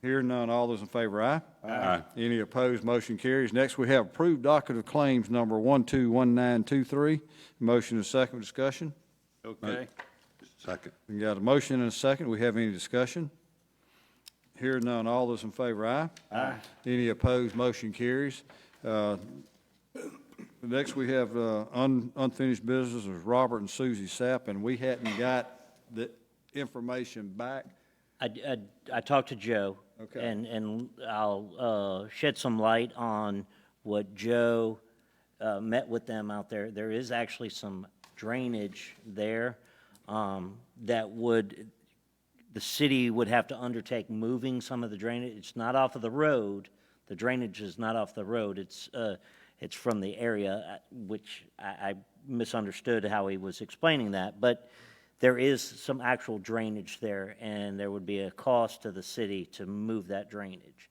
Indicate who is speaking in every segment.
Speaker 1: Hearing none, all those in favor, aye? Aye. Any opposed, motion carries. Next, we have approved docket of claims number 121923. Motion and second discussion.
Speaker 2: Okay.
Speaker 3: Second.
Speaker 1: We got a motion and a second. We have any discussion? Hearing none, all those in favor, aye? Aye. Any opposed, motion carries. Uh, Next, we have uh, un- unfinished business is Robert and Susie Sapp, and we hadn't got the information back.
Speaker 4: I, I, I talked to Joe.
Speaker 1: Okay.
Speaker 4: And, and I'll uh, shed some light on what Joe uh, met with them out there. There is actually some drainage there um, that would, the city would have to undertake moving some of the drainage. It's not off of the road. The drainage is not off the road. It's, uh, it's from the area, uh, which I, I misunderstood how he was explaining that. But there is some actual drainage there, and there would be a cost to the city to move that drainage.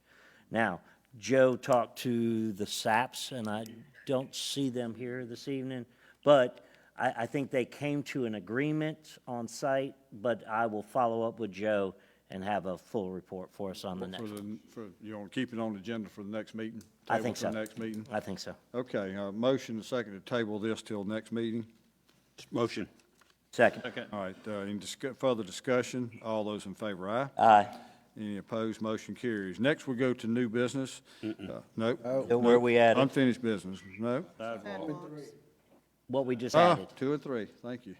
Speaker 4: Now, Joe talked to the SAPs, and I don't see them here this evening, but I, I think they came to an agreement on site, but I will follow up with Joe and have a full report for us on the
Speaker 1: For
Speaker 4: next.
Speaker 1: the, for, you want to keep it on the agenda for the next meeting?
Speaker 4: I think so.
Speaker 1: Table for the next meeting?
Speaker 4: I think so.
Speaker 1: Okay, uh, motion and second to table this till next meeting.
Speaker 3: Motion.
Speaker 4: Second.
Speaker 2: Second.
Speaker 1: All right, uh, any discu- further discussion? All those in favor, aye?
Speaker 4: Aye.
Speaker 1: Any opposed, motion carries. Next, we go to new business. Uh, Nope.
Speaker 4: So where
Speaker 1: Nope.
Speaker 4: we at?
Speaker 1: Unfinished business, no.
Speaker 4: What we just
Speaker 1: Ah,
Speaker 4: added.
Speaker 1: two and three, thank you.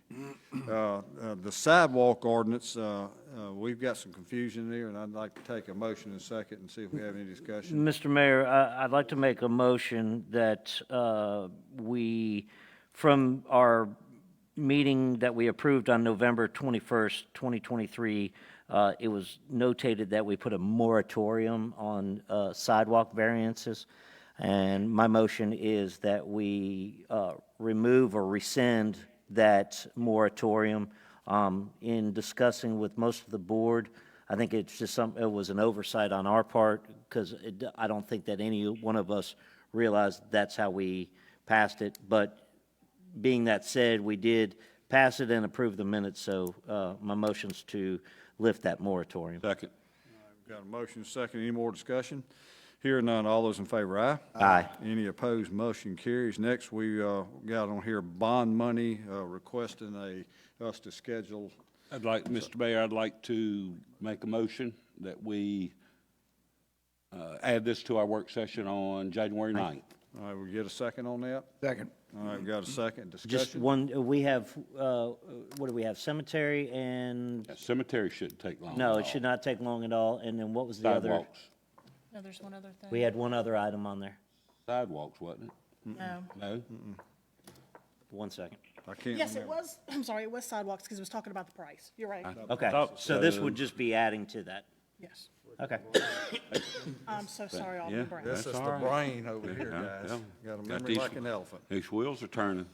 Speaker 1: Uh, uh, The sidewalk ordinance, uh, uh, we've got some confusion there, and I'd like to take a motion and second and see if we have any discussion.
Speaker 4: Mr. Mayor, I- I'd like to make a motion that uh, we, from our meeting that we approved on November 21st, 2023, uh, it was notated that we put a moratorium on uh, sidewalk variances. And my motion is that we uh, remove or rescind that moratorium. Um, In discussing with most of the board, I think it's just some, it was an oversight on our part, because I don't think that any one of us realized that's how we passed it. But being that said, we did pass it and approve the minutes, so uh, my motion's to lift that moratorium.
Speaker 3: Second.
Speaker 1: Got a motion and second, any more discussion? Here none, all those in favor, aye?
Speaker 4: Aye.
Speaker 1: Any opposed, motion carries. Next, we uh, got on here bond money, uh, requesting a, us to schedule,
Speaker 3: I'd like, Mr. Mayor, I'd like to make a motion that we uh, add this to our work session on January 9th.
Speaker 1: all right, we get a second on that?
Speaker 2: Second.
Speaker 1: All right, we got a second,
Speaker 4: Just
Speaker 1: discussion?
Speaker 4: one, we have, uh, what do we have, cemetery and,
Speaker 3: Cemetery shouldn't take long.
Speaker 4: no,
Speaker 3: at
Speaker 4: it should
Speaker 3: all.
Speaker 4: not take long at all, and then what was the other?
Speaker 3: Sidewalks.
Speaker 5: No, there's one other thing.
Speaker 4: We had one other item on there,
Speaker 3: Sidewalks, wasn't it?
Speaker 5: No.
Speaker 3: No?
Speaker 4: one second.
Speaker 1: I can't
Speaker 5: Yes, it
Speaker 1: remember.
Speaker 5: was, I'm sorry, it was sidewalks because it was talking about the price. You're right.
Speaker 3: Uh,
Speaker 4: Okay, so this would just be adding to that,
Speaker 5: Yes.
Speaker 4: okay.
Speaker 5: I'm so sorry,
Speaker 3: Yeah.
Speaker 5: Alderman Brown.
Speaker 3: That's
Speaker 1: This is
Speaker 3: all
Speaker 1: the
Speaker 3: right.
Speaker 1: brain over here,
Speaker 3: Yeah,
Speaker 1: guys.
Speaker 3: yeah.
Speaker 1: Got a
Speaker 3: Got
Speaker 1: memory
Speaker 3: these-
Speaker 1: like an elephant.
Speaker 3: These wheels are turning.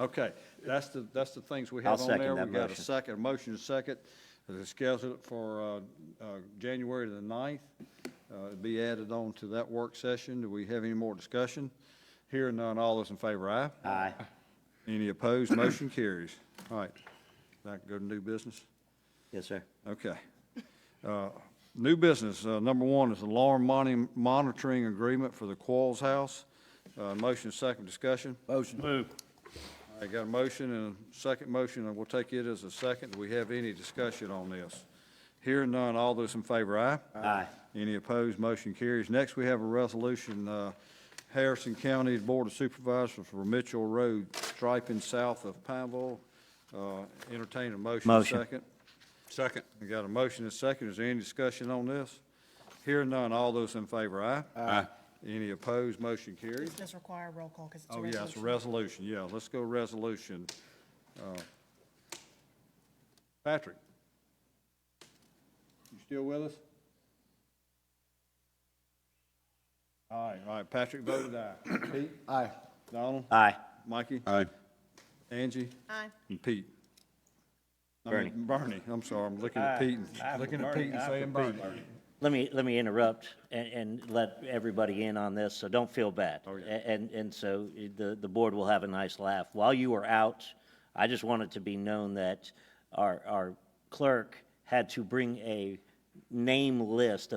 Speaker 1: Okay, that's the, that's the things we
Speaker 4: I'll
Speaker 1: have on
Speaker 4: second
Speaker 1: there.
Speaker 4: that
Speaker 1: We got a
Speaker 4: motion.
Speaker 1: second, a motion and a second, to schedule it for uh, uh, January the 9th. Uh, It'd be added on to that work session. Do we have any more discussion? Here none, all those in favor, aye?
Speaker 4: Aye.
Speaker 1: Any opposed, motion carries. All right, that go to new business?
Speaker 4: Yes, sir.
Speaker 1: Okay. Uh, New business, uh, number one is alarm moni- monitoring agreement for the Quarles House. Uh, Motion, second discussion.
Speaker 2: Motion. Move.
Speaker 1: I got a motion and a second motion, and we'll take it as a second. Do we have any discussion on this? Hearing none, all those in favor, aye?
Speaker 4: Aye.
Speaker 1: Any opposed, motion carries. Next, we have a resolution, uh, Harrison County Board of Supervisors for Mitchell Road, striping south of Pineville. Uh, Entertain a motion,
Speaker 4: Motion.
Speaker 1: second.
Speaker 3: Second.
Speaker 1: We got a motion and a second. Is there any discussion on this? Hearing none, all those in favor, aye?
Speaker 3: Aye.
Speaker 1: Any opposed, motion carries.
Speaker 5: Does require a roll call because it's a
Speaker 1: Oh, yeah, it's a resolution,
Speaker 5: resolution.
Speaker 1: yeah, let's go resolution. Uh, Patrick? You still with us? All right, all right, Patrick voted aye. Pete? Aye. Donald?
Speaker 4: Aye.
Speaker 1: Mikey?
Speaker 3: Aye.
Speaker 1: Angie?
Speaker 5: Aye.
Speaker 1: And Pete? I mean, Bernie, I'm sorry, I'm looking at Pete, and- looking at Pete and saying Bernie.
Speaker 4: Let me, let me interrupt and, and let everybody in on this, so don't feel bad.
Speaker 1: Oh, yeah.
Speaker 4: A- And, and so the, the board will have a nice laugh. While you were out, I just wanted to be known that our, our clerk had to bring a name list of